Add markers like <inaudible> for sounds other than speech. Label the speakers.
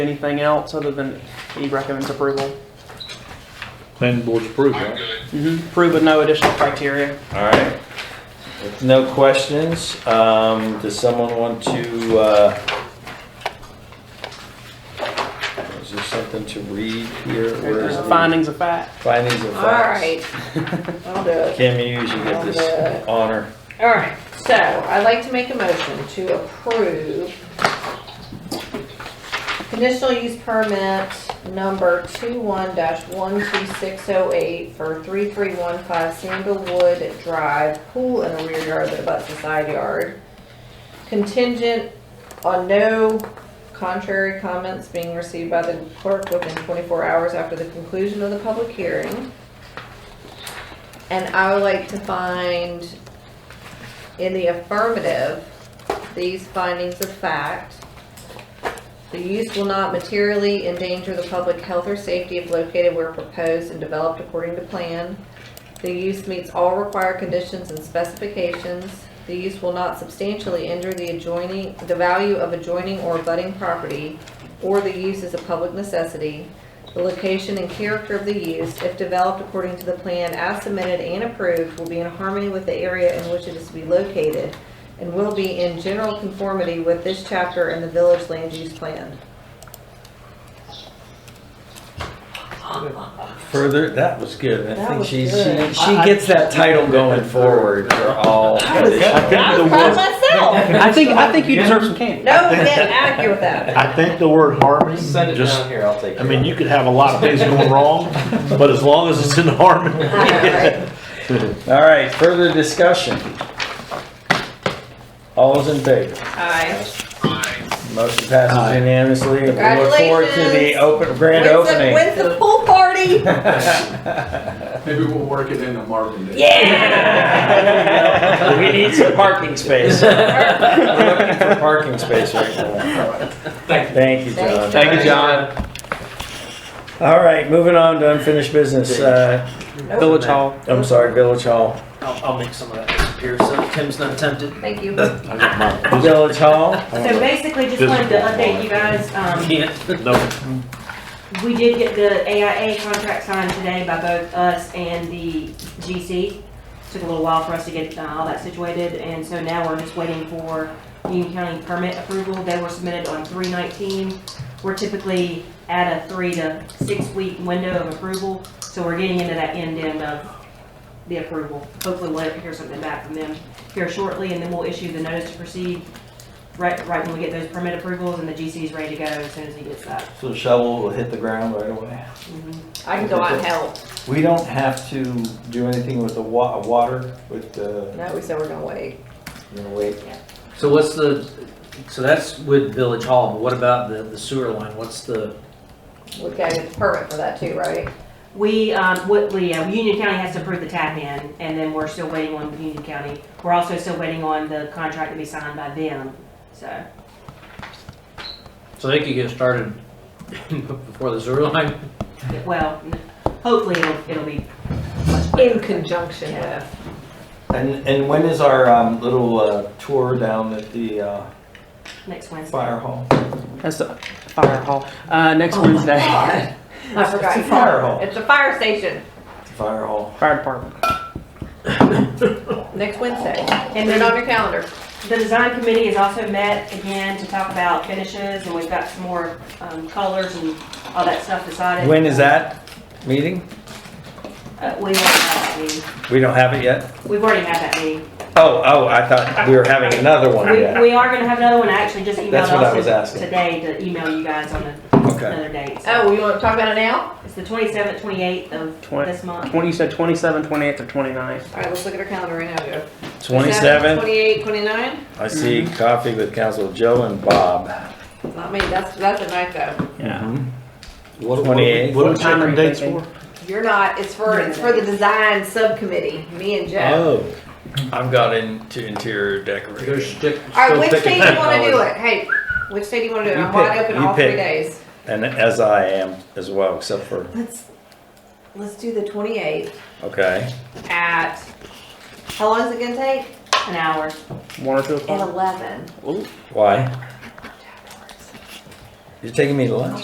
Speaker 1: Anything else other than he recommends approval?
Speaker 2: Planning board's approved,
Speaker 3: I'm
Speaker 2: right?
Speaker 3: good.
Speaker 1: Mm-hmm. Approve with no additional criteria.
Speaker 4: All right. If no questions, um, does someone want to, uh, is there something to read here? Where is
Speaker 1: There's
Speaker 4: the
Speaker 1: findings of fact.
Speaker 4: Findings of
Speaker 5: All
Speaker 4: facts.
Speaker 5: right, I'll do it.
Speaker 4: <laughs> Kim, you usually get this honor.
Speaker 5: All right, so I'd like to make a motion to approve conditional use permit number 21-12608 for 3315 Sandalwood Drive, pool in the rear yard that abuts the side yard. Contingent on no contrary comments being received by the clerk within 24 hours after the conclusion of the public hearing. And I would like to find in the affirmative, these findings of fact. The use will not materially endanger the public health or safety if located where proposed and developed according to plan. The use meets all required conditions and specifications. The use will not substantially injure the adjoining, the value of adjoining or abutting property, or the use is a public necessity. The location and character of the use, if developed according to the plan as submitted and approved, will be in harmony with the area in which it is to be located and will be in general conformity with this chapter and the village land use plan.
Speaker 4: Further, that was good. I
Speaker 5: That
Speaker 4: think
Speaker 5: was
Speaker 4: she, she,
Speaker 5: good.
Speaker 4: she gets that title going forward for all.
Speaker 2: I
Speaker 5: I
Speaker 2: think the
Speaker 5: was proud of
Speaker 2: word,
Speaker 5: myself.
Speaker 1: I think, I think you deserve some candy.
Speaker 5: No, we didn't argue with that.
Speaker 2: I think the word harmony,
Speaker 4: Send it down
Speaker 2: just,
Speaker 4: here, I'll take it.
Speaker 2: I mean, you could have a lot of things going wrong, but as long as it's in harmony.
Speaker 4: All right, further discussion. All is in favor?
Speaker 5: Aye.
Speaker 4: Motion passes unanimously. and We look forward to the
Speaker 5: Congratulations.
Speaker 4: open, grand
Speaker 5: When's the-
Speaker 4: opening. <laughs>
Speaker 5: When's the pool party?
Speaker 6: Maybe we'll work it into Marvin Day.
Speaker 4: Yeah.
Speaker 1: We need some parking space.
Speaker 4: We're looking for parking space right now. Thank you, John.
Speaker 5: Thanks, Thank you,
Speaker 1: John.
Speaker 4: All right, moving on to unfinished business. Uh,
Speaker 1: Village Hall.
Speaker 4: I'm sorry, Village Hall.
Speaker 7: I'll, I'll make some of that disappear so Tim's not tempted.
Speaker 5: Thank you.
Speaker 2: I got my-
Speaker 4: Village Hall.
Speaker 8: So basically, just wanted to update you guys, um,
Speaker 7: Can't.
Speaker 2: No,
Speaker 8: we did get the AIA contract signed today by both us and the GC. Took a little while for us to get uh, all that situated, and so now we're just waiting for Union County permit approval. They were submitted on three nineteen. We're typically at a three to six week window of approval, so we're getting into that end end of the approval. Hopefully we'll hear something back from them here shortly, and then we'll issue the notice to proceed right, right when we get those permit approvals, and the GC is ready to go as soon as he gets that.
Speaker 4: So the shovel will hit the ground right away.
Speaker 5: I can go out and help.
Speaker 4: We don't have to do anything with the wa- water, with the,
Speaker 5: No, we said we're gonna wait.
Speaker 4: you know, wait.
Speaker 7: So what's the, so that's with Village Hall, but what about the, the sewer line? What's the,
Speaker 5: We've got to get the permit for that too, right?
Speaker 8: We, um, what, we, uh, Union County has to approve the tap in, and then we're still waiting on Union County. We're also still waiting on the contract to be signed by them, so.
Speaker 7: so they could get started <laughs> before the sewer line?
Speaker 8: Well, hopefully it'll, it'll be uh,
Speaker 5: In conjunction with.
Speaker 4: And, and when is our um, little uh, tour down at the uh,
Speaker 8: next Wednesday.
Speaker 4: fire hall?
Speaker 1: That's the fire hall. Uh, next Wednesday,
Speaker 5: God, I forgot.
Speaker 4: It's a fire hall.
Speaker 5: It's a fire station,
Speaker 4: Fire hall.
Speaker 1: fire department.
Speaker 5: next Wednesday.
Speaker 8: And
Speaker 5: And then on your calendar.
Speaker 8: The design committee has also met again to talk about finishes, and we've got some more, um, colors and all that stuff decided.
Speaker 4: When is that meeting?
Speaker 8: Uh, we, will have that meeting.
Speaker 4: We don't have it yet?
Speaker 8: we've already had that meeting.
Speaker 4: Oh, oh, I thought we were having another one
Speaker 8: We,
Speaker 4: yet.
Speaker 8: we are gonna have another one, I actually just emailed
Speaker 4: That's what I was
Speaker 8: us
Speaker 4: asking.
Speaker 8: today to email you guys on a-
Speaker 4: Okay.
Speaker 8: another date. So
Speaker 5: Oh, you want to talk about it now?
Speaker 8: It's the twenty-seventh, twenty-eighth of
Speaker 1: Twen-
Speaker 8: this month.
Speaker 1: Twenty, you said twenty-seven, twenty-eighth, or twenty-ninth?
Speaker 5: All right, let's look at our calendar right now, Joe.
Speaker 4: 27.
Speaker 5: 28, 29?
Speaker 4: I see coffee with Council Joe and Bob.
Speaker 5: Not me, that's, that's a night though.
Speaker 1: Yeah.
Speaker 2: What- what-
Speaker 4: 28.
Speaker 2: What are we
Speaker 1: What time are
Speaker 2: checking
Speaker 1: you
Speaker 2: dates
Speaker 1: thinking?
Speaker 2: for?
Speaker 5: You're not, it's for, it's for the design subcommittee, me and Joe.
Speaker 4: Oh. I've got into interior decoration.
Speaker 5: All right, which day do you want to do it? Hey, which day do you want to do it?
Speaker 4: You
Speaker 5: I'm wide
Speaker 4: pick,
Speaker 5: open
Speaker 4: you
Speaker 5: all three
Speaker 4: pick.
Speaker 5: days.
Speaker 4: And as I am as well, except for,
Speaker 5: Let's, let's do the 28th
Speaker 4: okay.
Speaker 5: at, how long is it gonna take?
Speaker 8: An hour.
Speaker 1: One or two
Speaker 5: At
Speaker 1: o'clock?
Speaker 5: 11.
Speaker 4: Why? You're taking me to lunch?